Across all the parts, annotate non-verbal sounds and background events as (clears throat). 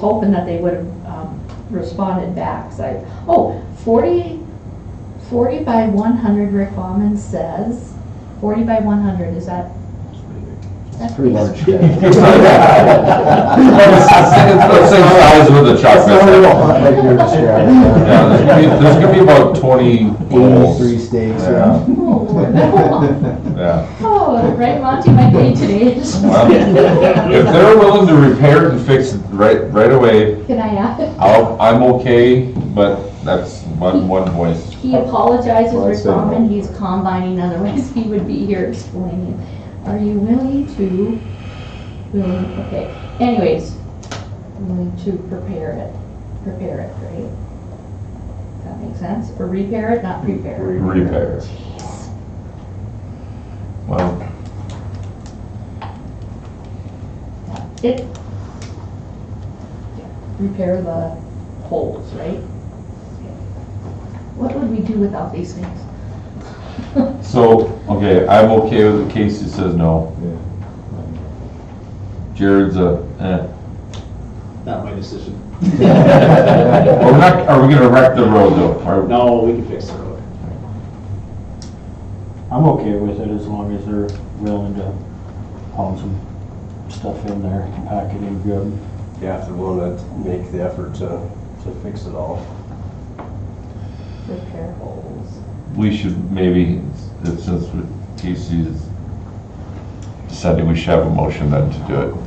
hoping that they would have um, responded back. So I, oh, 40, 40 by 100, Rick Bauman says, 40 by 100, is that? That's Pretty large. (laughs) It's the same size with the That's truck. not a real that's hunt it. like you're Yeah, there's gonna be, there's gonna be about twenty Eighty-three holes. stakes, Yeah. yeah. Oh, Yeah. oh, right, Monty might be today. Well, If they're willing to repair it and fix it right, right away, Can I add? I'll, I'm okay, but that's one, one voice. He apologizes, Well, I'd Rick say no. Bauman, he's combining, otherwise (laughs) he would be here explaining. Are you willing to, willing, okay, anyways, willing to prepare it, prepare it, right? That makes sense, or repair it, not prepare. it. Repair. Well, It, yeah, repair the holes, right? What would we do without these things? so, okay, I'm okay with the case that says no. Jared's a, eh. Not my decision. Well, we're not, are we gonna wreck the road though? Are- No, we can fix the road. I'm okay with it as long as they're willing to pound some stuff in there and pack it in good. Yeah, if they're willing to make the effort to, to fix it all. Repair holes. We should maybe, since Casey's decided we should have a motion then to do it.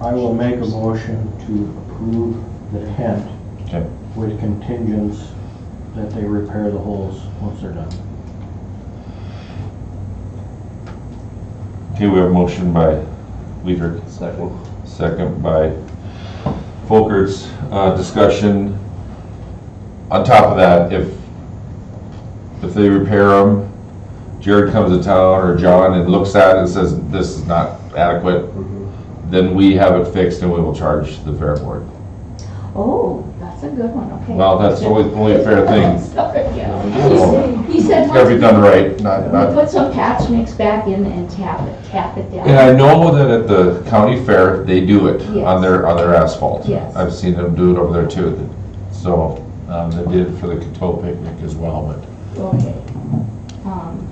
I will make a motion to approve the tent Okay. with contingents that they repair the holes once they're done. Okay, we have a motion by Weider, Second. second by Folkerts. Uh, discussion. On top of that, if, if they repair them, Jared comes to town or John and looks at it and says, this is not adequate, then we have it fixed and we will charge the fair board. Oh, that's a good one, okay. Well, that's the only, the only fair thing. (laughs) Sorry, yeah. He said, It's gotta be once done right, not, not we put some patch mix back in and tap it, tap it And down. I know that at the county fair, they do it on their, on their asphalt. Yes. I've seen them do it over there too. So, um, they did it for the Coteau picnic as well, but Okay. Um,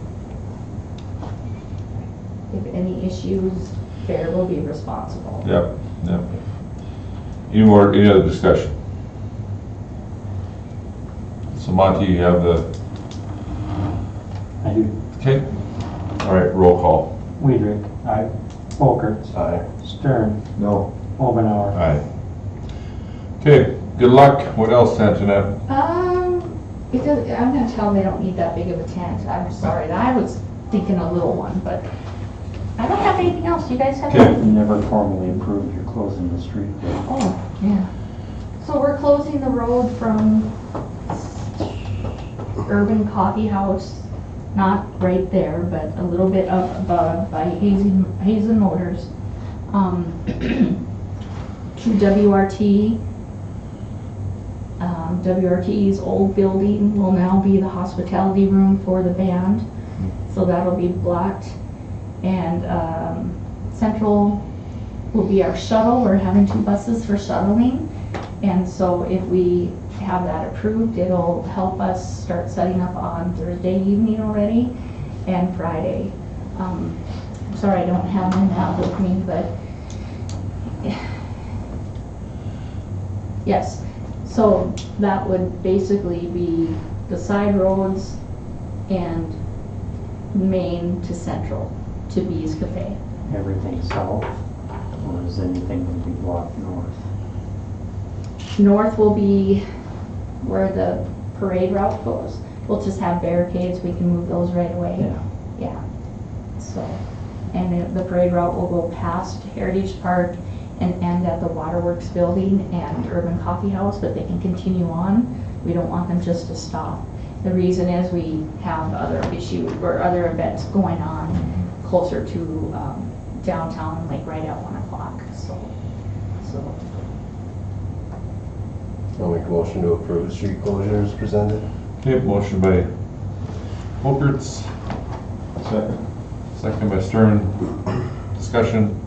If any issues, fair will be responsible. Yep, yep. Any more, any other discussion? So Monty, you have the, I do. okay? All right, roll call. Weidrich, aye. Folkerts, Aye. Stern, No, All Omenauer. right. Okay, good luck. What else, Antoinette? Um, it does, I'm gonna tell them they don't need that big of a tent, I'm sorry, I was thinking a little one, but I don't have anything else, you guys have? Okay. anything? Never formally approved your closing the street. Oh, yeah. So we're closing the road from Urban Coffee House, not right there, but a little bit up above by Hazen, Hazen Motors, um, (clears throat) to WRT. Um, WRT's old building will now be the hospitality room for the band, so that'll be blocked. And, um, Central will be our shuttle. We're having two buses for shuttling. And so if we have that approved, it'll help us start setting up on Thursday evening already and Friday. Um, I'm sorry, I don't have my map with me, but (sighs) yes. So that would basically be the side roads and Main to Central to Bees Cafe. Everything south, or is anything going to be blocked north? North will be where the parade route goes. We'll just have barricades, we can move those right away. Yeah. So, and it- the parade route will go past Heritage Park and end at the Waterworks Building and Urban Coffee House, but they can continue on. We don't want them just to stop. The reason is we have other issue, or other events going on closer to um, downtown, like right at one o'clock, so, so. I'll make a motion to approve the street closures presented. Okay, motion by Folkerts, second. second by Stern. Discussion.